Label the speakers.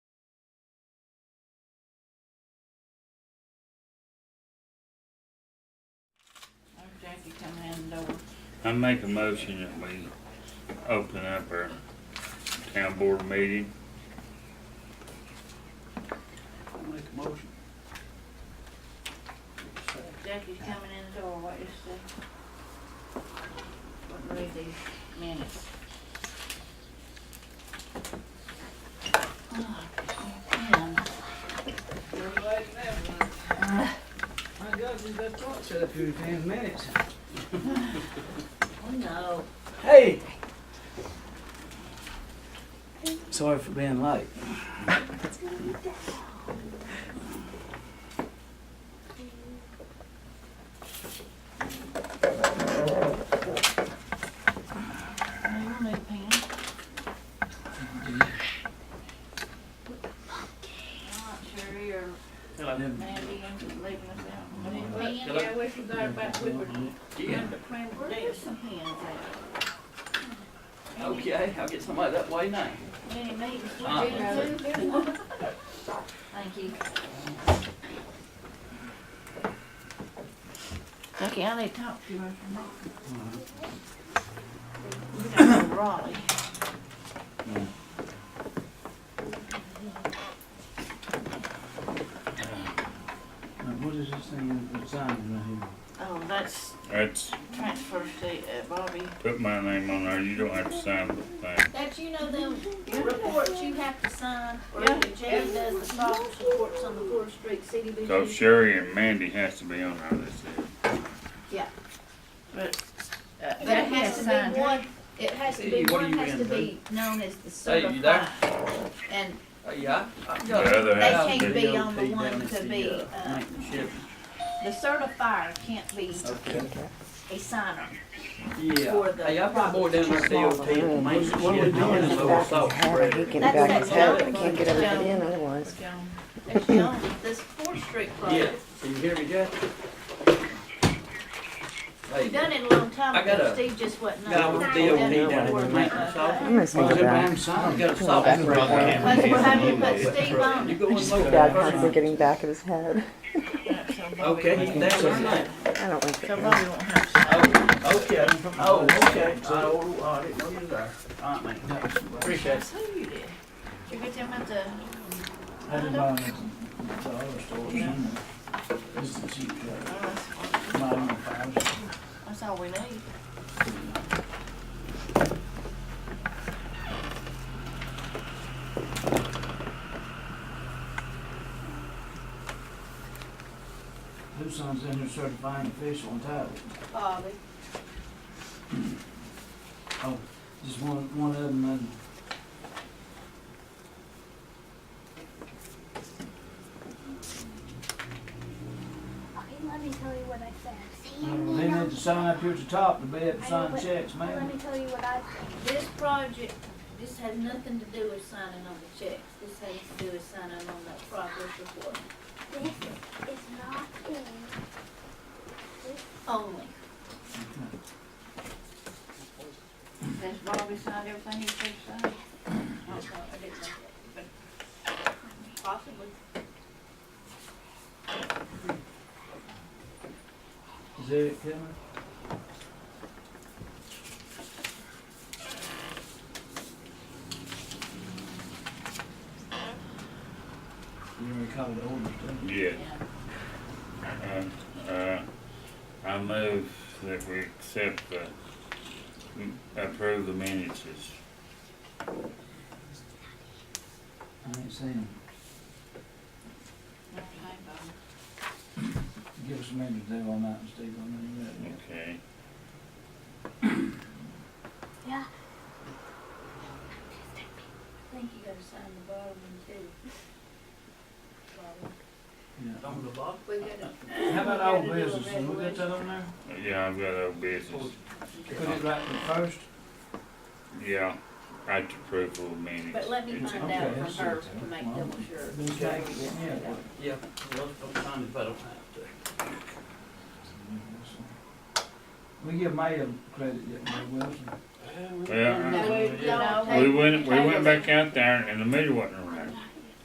Speaker 1: I make a motion that we open up our town board meeting.
Speaker 2: I'll make a motion.
Speaker 3: Jackie's coming in the door, what is the? What read these minutes? Oh, man.
Speaker 2: You're late now, my my God, we got clock set up here in ten minutes.
Speaker 3: Oh, no.
Speaker 2: Hey! Sorry for being late.
Speaker 3: I don't need a pen. I'm not sure you're Mandy and leaving us out. Need a pen? Yeah, we forgot about, we were, remember playing, where's some pens at? Any-
Speaker 2: Okay, I'll get somebody that way now.
Speaker 3: Any meetings we
Speaker 2: Uh-uh.
Speaker 3: did, too? Thank you. Okay, I need to talk to you right now. We got to Raleigh.
Speaker 2: Now, Uh, what is this thing that's signing right here?
Speaker 3: Oh, that's
Speaker 1: That's,
Speaker 3: transfer seat at Bobby.
Speaker 1: put my name on there, you don't have to sign the thing.
Speaker 4: That you know them reports you have to sign, or
Speaker 3: Yeah.
Speaker 4: the jail does the progress reports on the Fourth Street
Speaker 1: So
Speaker 4: CDBG.
Speaker 1: Sherry and Mandy has to be on there, that's it.
Speaker 3: But, uh,
Speaker 4: But
Speaker 3: that
Speaker 4: it has to be one, it has to be,
Speaker 2: Hey, what are
Speaker 4: one
Speaker 2: you
Speaker 4: has to
Speaker 2: in,
Speaker 4: be known as the
Speaker 2: Hey, you there?
Speaker 4: certified. And
Speaker 2: Uh, yeah. I- I
Speaker 1: The
Speaker 2: got it.
Speaker 1: other
Speaker 4: They
Speaker 1: has to
Speaker 4: can't
Speaker 1: be,
Speaker 4: be on the
Speaker 2: DOT
Speaker 4: one
Speaker 2: down at
Speaker 4: to
Speaker 2: the,
Speaker 4: be,
Speaker 2: uh,
Speaker 4: uh,
Speaker 2: maintenance shed.
Speaker 4: the certifier can't be
Speaker 2: Okay.
Speaker 4: a signer.
Speaker 2: Yeah,
Speaker 4: For the
Speaker 2: hey, I got boy down there at DOT, and maintenance shed,
Speaker 5: What are we
Speaker 2: and
Speaker 5: doing?
Speaker 2: I
Speaker 5: Back his
Speaker 2: oversaw.
Speaker 5: hat, he can
Speaker 4: That's
Speaker 5: back
Speaker 4: that
Speaker 5: his hat, I
Speaker 4: zone.
Speaker 5: can't get over to them otherwise.
Speaker 3: Joan,
Speaker 4: That's known, this Fourth Street
Speaker 2: Yeah,
Speaker 4: project,
Speaker 2: can you hear me, Jack?
Speaker 4: we
Speaker 2: Hey,
Speaker 4: done it a long time
Speaker 2: I got
Speaker 4: ago,
Speaker 2: a-
Speaker 4: Steve just wasn't.
Speaker 2: got
Speaker 4: on
Speaker 2: a
Speaker 4: it.
Speaker 2: deal
Speaker 4: Done
Speaker 2: with
Speaker 4: it
Speaker 2: down at
Speaker 4: before,
Speaker 2: the maintenance
Speaker 4: uh,
Speaker 2: office.
Speaker 5: I'm gonna
Speaker 2: Well,
Speaker 5: sneak
Speaker 2: they're
Speaker 5: back.
Speaker 2: damn sign, got a
Speaker 5: Back
Speaker 2: soft
Speaker 5: of
Speaker 2: right there.
Speaker 5: his
Speaker 4: That's
Speaker 5: hat.
Speaker 4: what happened, put Steve on
Speaker 2: You
Speaker 4: it.
Speaker 2: go
Speaker 5: I
Speaker 2: and
Speaker 5: just
Speaker 2: look
Speaker 5: got
Speaker 2: at
Speaker 5: God
Speaker 2: it first.
Speaker 5: constantly getting back of his head.
Speaker 3: that's on Bobby.
Speaker 2: Okay, he's down there now.
Speaker 5: I don't think
Speaker 3: So
Speaker 5: that.
Speaker 3: Bobby won't have to sign.
Speaker 2: Oh, okay, oh, okay. Oh, I didn't know you were there. All right, mate. Appreciate it.
Speaker 3: That's who you did. Did you get them at the?
Speaker 6: I didn't buy it at the dollar store, it's in there. It's the cheap
Speaker 3: Oh,
Speaker 6: drug,
Speaker 4: uh,
Speaker 3: that's-
Speaker 6: not on the five.
Speaker 3: That's all we need.
Speaker 6: Who signs in there certifying official and title?
Speaker 4: Bobby.
Speaker 6: Oh, just one, one of them, and
Speaker 7: Okay, let me tell you what I said. See,
Speaker 6: you
Speaker 7: you
Speaker 6: know,
Speaker 7: need
Speaker 6: they
Speaker 7: not-
Speaker 6: need to sign up here at the top to be able to
Speaker 7: I
Speaker 6: sign
Speaker 7: know it.
Speaker 6: checks,
Speaker 7: Let
Speaker 6: man.
Speaker 7: me tell you what I said.
Speaker 4: This project, this has nothing to do with signing on the checks. This has to do with signing on that progress report
Speaker 7: This is not in.
Speaker 4: only.
Speaker 3: Has Bobby signed everything he said to sign?
Speaker 4: Oh, no, I didn't know that, but possibly.
Speaker 6: Is Eric coming? You recall the old stuff?
Speaker 1: yes. Uh, uh, I move that we accept the, approve the minutes as
Speaker 6: I ain't seen him.
Speaker 3: No, I ain't Bobby.
Speaker 6: Give us a minute to do all night and Steve on that. you got it.
Speaker 1: Okay.
Speaker 7: Yeah.
Speaker 4: I think you gotta sign the bottom one too. Bobby.
Speaker 6: Yeah.
Speaker 2: On the bottom.
Speaker 4: We gotta,
Speaker 6: How about old
Speaker 4: We gotta do a
Speaker 6: business, and we got that on there?
Speaker 1: Yeah, I've got old business.
Speaker 6: Put it right in the first?
Speaker 1: Yeah, I approve of minutes.
Speaker 4: but let me
Speaker 1: It's-
Speaker 4: find out from her to make double sure.
Speaker 6: Then you take it, yeah.
Speaker 2: Yeah, well, don't sign if I don't have to.
Speaker 6: We give Mayor credit, yeah, Wilson.
Speaker 1: Well,
Speaker 3: No, we-
Speaker 2: Yeah.
Speaker 3: no,
Speaker 1: We went, we went back out there and the meter wasn't